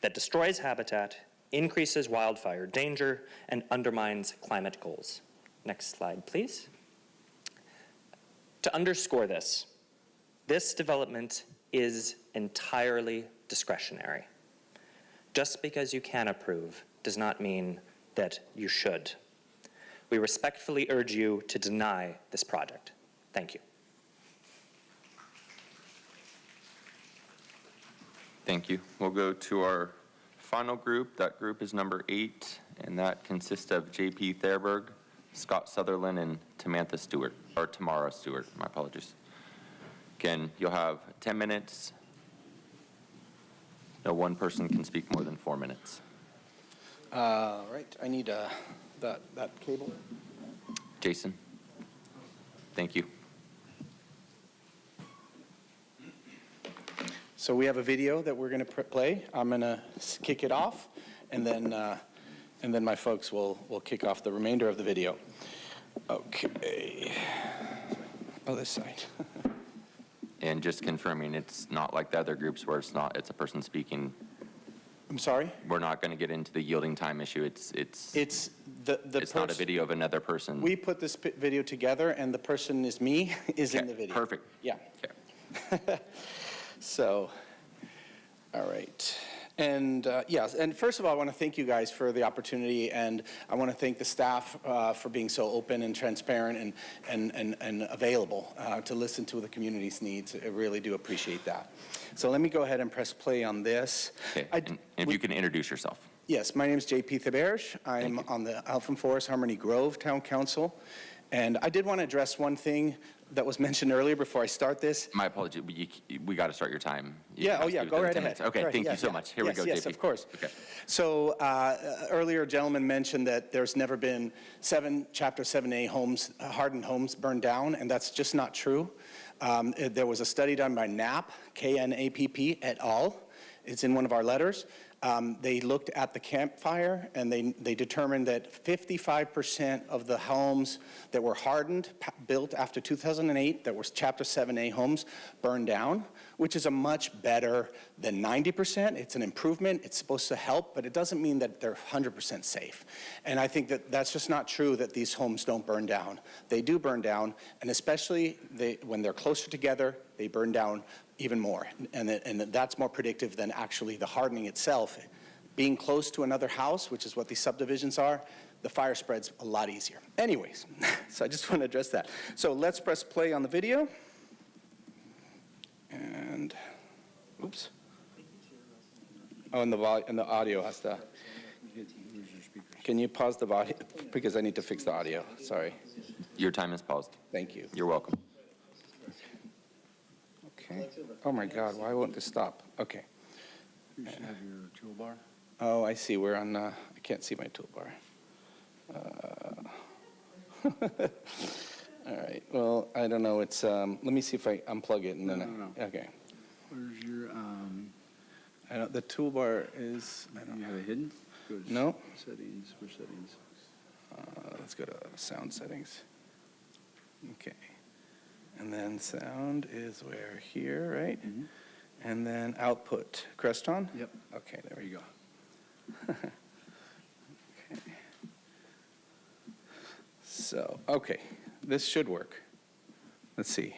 that destroys habitat, increases wildfire danger, and undermines climate goals. Next slide, please. To underscore this, this development is entirely discretionary. Just because you can approve does not mean that you should. We respectfully urge you to deny this project. Thank you. Thank you. We'll go to our final group. That group is number eight, and that consists of JP Therberg, Scott Sutherland, and Tamantha Stewart, or Tamara Stewart, my apologies. Again, you'll have 10 minutes. No one person can speak more than four minutes. All right, I need uh, that, that cable. Jason? Thank you. So we have a video that we're going to play. I'm going to kick it off, and then, uh, and then my folks will, will kick off the remainder of the video. Okay. Oh, this side. And just confirming, it's not like the other groups where it's not, it's a person speaking. I'm sorry? We're not going to get into the yielding time issue. It's, it's, It's the, the. it's not a pers- video of another person. We put this pi- video together, and the person is me, is in Okay, the video. Perfect. Yeah. Okay. So, all right. And uh, yes, and first of all, I want to thank you guys for the opportunity, and I want to thank the staff uh, for being so open and transparent and, and, and, and available uh, to listen to the community's needs. I really do appreciate that. So let me go ahead and press play on this. Okay, I- and and if we- you can introduce yourself. Yes, my name is JP Thaberge. I'm Thank on the Alphen Forest Harmony Grove Town Council. And I did want to address one thing that was mentioned earlier before I start this. My apology, but you, c- we got to start your time. You Yeah, have oh to yeah, do it go within right 10 ahead. minutes. Okay, Go right- thank yeah, you so yeah. much. Here we Yes, go, JP. Yes, of course. Okay. So uh, earlier, a gentleman mentioned that there's never been seven, Chapter 7A homes, uh, hardened homes burned down, and that's just not true. Um, it- There was a study done by KNAPP, K-N-A-P-P et al. It's in one of our letters. Um, They looked at the campfire, and they they determined that 55% of the homes that were hardened, pa- built after 2008, that were Chapter 7A homes, burned down, which is a much better than 90%. It's an improvement. It's supposed to help, but it doesn't mean that they're 100% safe. And I think that that's just not true that these homes don't burn down. They do burn down, and especially they, when they're closer together, they burn down even more. And, that- and that's more predictive than actually the hardening itself. Being close to another house, which is what these subdivisions are, the fire spreads a lot easier. Anyways, so I just want to address that. So let's press play on the video. And, oops. Oh, and the vol, and the audio has to. Can you pause the volume, because I need to fix the audio, sorry, Your time is paused. thank you. You're welcome. Okay, oh my God, why won't this stop? Okay, You should have your toolbar. oh, I see, we're on, uh, I can't see my toolbar. Uh, All right, well, I don't know, it's, um, let me see if I unplug it and then, No, no, I- okay. Where's your, um, I don't, the toolbar is, I do don't you know, have it hidden? Go to No. Settings, which settings? Uh, let's go to sound settings. Okay. And then sound is where here, right? Mm-hmm. Mhm. And then output, Creston? Yep. Okay, there There we you go. go. So, okay, this should work. Let's see.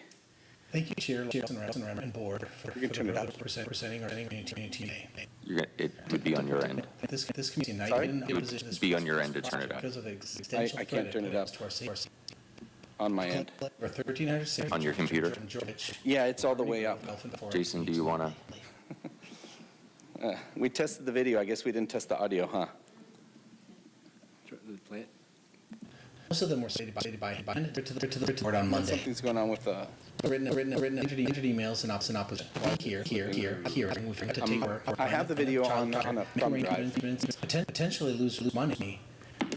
Thank you, Chair Larson Remmer and Board for for You can turn the it role up. of present- presenting our community today. You're, gonna- it would be on your end. This, this community Sorry? united in It would opposition to this. be on your end to turn it up. Because of the existential I threat can't turn it it up. poses to our safety. On my end. Over 1,300 On your computer? from George- Yeah, it's all the way up. Gulf and Forest. Jason, do you want to? We tested the video, I guess we didn't test the audio, huh? Try to play it. Most of them were stated by, stated by, by, to the, to the- to the board on Monday. Something's going on with the, Written, written, written, entered, entered emails and opposite, opposite. Here, here, here, here. and We've got to take Um, our. I have the video on- child- on a thumb Maybe drive. poten- Potentially lose, lose money,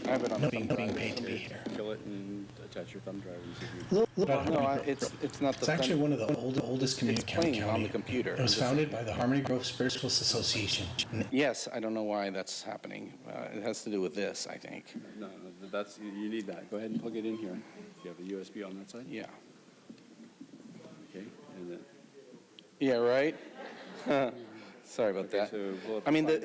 I have it on the not being, thumb not being drive. paid to be here. Kill it and attach your thumb drive and see if you. No, No, I- it's, it's not the It's actually thumb. one of the old, oldest community It's playing county. on the computer. It was I'm just- founded by the Harmony Grove Spiritualist Association. And Yes, I don't know why that's happening. Uh, It has to do with this, I think. No, no, th- that's, you you need that. Go ahead and plug it in here. You have the USB on that side? Yeah. Okay, and then. Yeah, right? Sorry about Okay, that. so pull up I mean, the,